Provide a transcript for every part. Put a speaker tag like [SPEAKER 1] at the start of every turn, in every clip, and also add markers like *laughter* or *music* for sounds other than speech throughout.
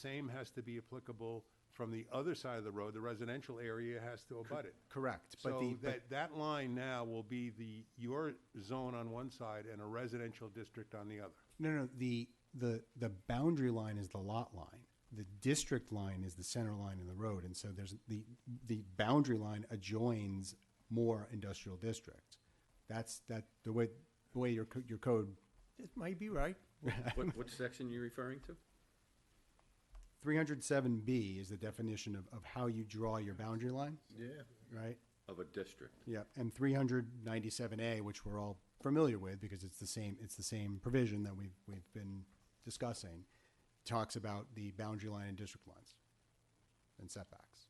[SPEAKER 1] Same has to be applicable from the other side of the road, the residential area has to abut it.
[SPEAKER 2] Correct, but the,
[SPEAKER 1] So
[SPEAKER 2] but,
[SPEAKER 1] that, that line now will be the, your zone on one side and a residential district on the other.
[SPEAKER 2] no, no, the, the, the boundary line is the lot line. The district line is the center line in the road, and so there's, the, the boundary line adjoins more industrial districts. That's, that, the way, the way your, co- your code, it might be right.
[SPEAKER 3] What, what section you referring to?
[SPEAKER 2] Three hundred seven B is the definition of, of how you draw your boundary line,
[SPEAKER 4] Yeah.
[SPEAKER 2] right?
[SPEAKER 3] Of a district.
[SPEAKER 2] Yeah, and three hundred ninety-seven A, which we're all familiar with because it's the same, it's the same provision that we've, we've been discussing, talks about the boundary line and district lines and setbacks.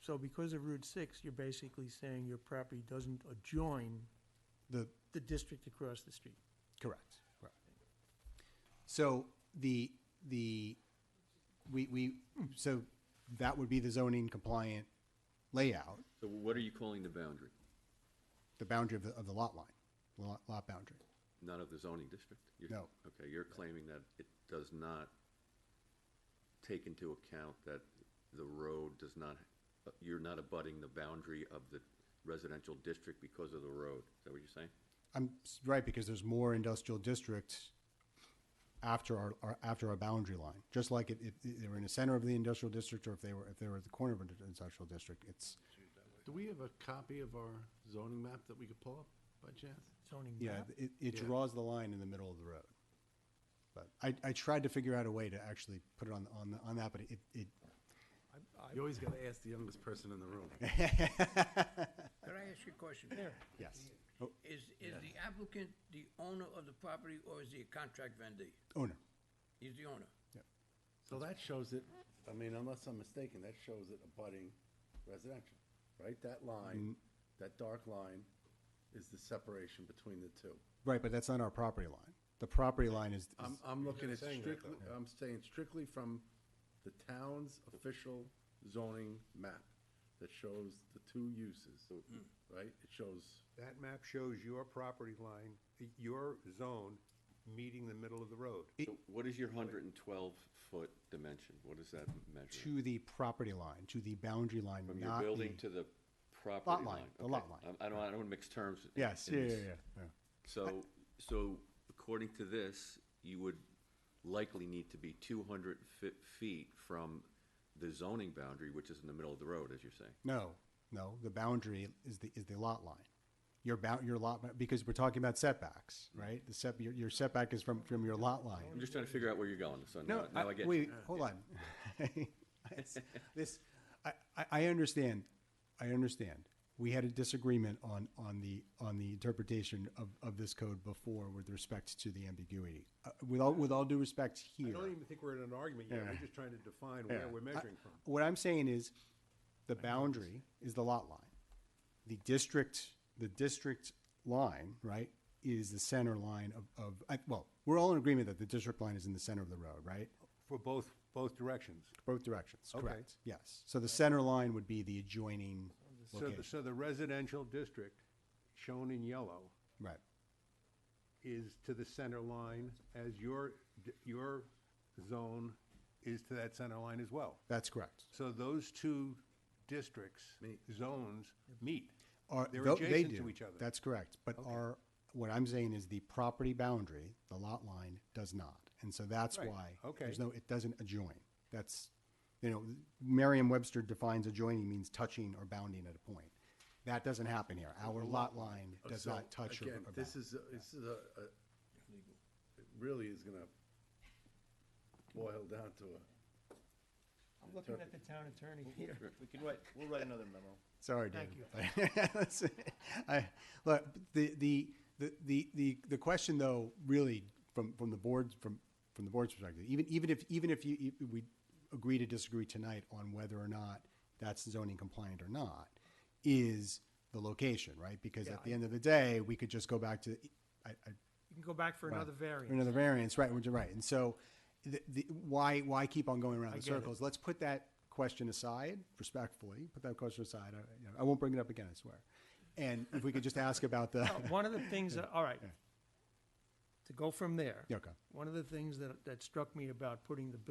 [SPEAKER 5] So because of Route 6, you're basically saying your property doesn't adjoin
[SPEAKER 2] The,
[SPEAKER 5] the district across the street.
[SPEAKER 2] correct, correct. So the, the, we, we, so that would be the zoning compliant layout,
[SPEAKER 3] So what are you calling the boundary?
[SPEAKER 2] the boundary of the, of the lot line, lot, lot boundary.
[SPEAKER 3] Not of the zoning district? You're-
[SPEAKER 2] No.
[SPEAKER 3] Okay, you're claiming that it does not take into account that the road does not, you're not abutting the boundary of the residential district because of the road. Is that what you're saying?
[SPEAKER 2] I'm s- right because there's more industrial districts after our, our after our boundary line. Just like if, if they were in the center of the industrial district, or if they were if they were at the corner of an industrial district, it's
[SPEAKER 4] Do we have a copy of our zoning map that we could pull up by chance?
[SPEAKER 5] Zoning
[SPEAKER 2] yeah,
[SPEAKER 5] map.
[SPEAKER 2] it, it
[SPEAKER 4] Yeah.
[SPEAKER 2] draws the line in the middle of the road. But I, I tried to figure out a way to actually put it on on the, on that, but it, it
[SPEAKER 4] You always gotta ask the youngest person in the *laughs* room.
[SPEAKER 6] Can I ask you a question?
[SPEAKER 2] yes
[SPEAKER 6] Is, is the applicant the owner of the property or is he a contract vendor?
[SPEAKER 2] owner
[SPEAKER 6] He's the owner.
[SPEAKER 4] So that shows it, I mean, unless I'm mistaken, that shows it abutting residential, right? That line, that dark line is the separation between the two.
[SPEAKER 2] right, but that's not our property line. The property line is, is
[SPEAKER 4] I'm, I'm looking at strictly, I'm saying strictly from the town's official zoning map that shows the two uses, right? It shows,
[SPEAKER 1] That map shows your property line, your zone meeting the middle of the road.
[SPEAKER 3] So What is your hundred and twelve foot dimension? What does that measure?
[SPEAKER 2] to the property line, to the boundary line,
[SPEAKER 3] From your
[SPEAKER 2] not
[SPEAKER 3] building
[SPEAKER 2] the,
[SPEAKER 3] to the property line?
[SPEAKER 2] line, the
[SPEAKER 3] Okay.
[SPEAKER 2] lot line.
[SPEAKER 3] I I don't, I don't wanna mix terms. in-
[SPEAKER 2] yes,
[SPEAKER 3] in
[SPEAKER 2] yeah, yeah,
[SPEAKER 3] this.
[SPEAKER 2] yeah, yeah.
[SPEAKER 3] So, so according to this, you would likely need to be two hundred feet from the zoning boundary, which is in the middle of the road, as you're saying.
[SPEAKER 2] No, no, the boundary is the, is the lot line. Your bound, your lot, ma- because we're talking about setbacks, right? The set, your, your setback is from, from your lot
[SPEAKER 3] I'm
[SPEAKER 2] line.
[SPEAKER 3] just trying to figure out where you're going, so
[SPEAKER 2] No,
[SPEAKER 3] now, now I
[SPEAKER 2] I-
[SPEAKER 3] get you.
[SPEAKER 2] wait, hold *laughs* on. It's- This, I, I, I understand, I understand. We had a disagreement on, on the, on the interpretation of, of this code before with respect to the ambiguity. Uh, With all, with all due respect
[SPEAKER 1] I
[SPEAKER 2] here.
[SPEAKER 1] don't even think we're in an argument yet,
[SPEAKER 2] Yeah.
[SPEAKER 1] we're just trying to define where
[SPEAKER 2] Yeah.
[SPEAKER 1] we're
[SPEAKER 2] I-
[SPEAKER 1] measuring from.
[SPEAKER 2] What I'm saying is, the boundary is the lot line. The district, the district line, right, is the center line of, of, I, well, we're all in agreement that the district line is in the center of the road, right?
[SPEAKER 1] For both, both directions.
[SPEAKER 2] Both directions,
[SPEAKER 1] Okay.
[SPEAKER 2] correct, yes. So the center line would be the adjoining
[SPEAKER 1] So, the-
[SPEAKER 2] location,
[SPEAKER 1] so the residential district, shown in yellow,
[SPEAKER 2] right,
[SPEAKER 1] is to the center line as your, d- your zone is to that center line as well.
[SPEAKER 2] that's correct.
[SPEAKER 1] So those two districts, zones, meet.
[SPEAKER 2] Are-
[SPEAKER 1] They're
[SPEAKER 2] tho- they
[SPEAKER 1] adjacent to
[SPEAKER 2] do.
[SPEAKER 1] each other.
[SPEAKER 2] That's correct, but our, what I'm saying is the property boundary, the lot line, does not. And so that's
[SPEAKER 1] Right,
[SPEAKER 2] why.
[SPEAKER 1] okay.
[SPEAKER 2] There's no, it doesn't adjoin. That's, you know, Merriam-Webster defines adjoining means touching or bounding at a point. That doesn't happen here. Our lot line does
[SPEAKER 4] So,
[SPEAKER 2] not touch or or
[SPEAKER 4] Again,
[SPEAKER 2] bound.
[SPEAKER 4] this is, a- this is a, a, it really is gonna boil down to a,
[SPEAKER 5] I'm looking at the town attorney here.
[SPEAKER 7] We can write, we'll write another memo.
[SPEAKER 2] Sorry,
[SPEAKER 5] Thank
[SPEAKER 2] David. *laughs* That's- I, look, the, the, the, the, the, the question though, really, from, from the board, from, from the board's perspective, even, even if, even if you, if we agree to disagree tonight on whether or not that's zoning compliant or not, is the location, right? Because at the end of the day, we could just go back to, I, I,
[SPEAKER 5] You can go back for another
[SPEAKER 2] or
[SPEAKER 5] variant.
[SPEAKER 2] Another variance, right, which- right. And so the, the, why, why keep on going around in
[SPEAKER 5] get it.
[SPEAKER 2] circles? Let's put that question aside, respectfully, put that question aside. I, you know, I won't bring it up again, I
[SPEAKER 5] Oh,
[SPEAKER 2] swear. And if we could just ask about the,
[SPEAKER 5] One of the things, that- all right.
[SPEAKER 7] to go from there.
[SPEAKER 8] Yeah, okay.
[SPEAKER 7] One of the things that, that struck me about putting the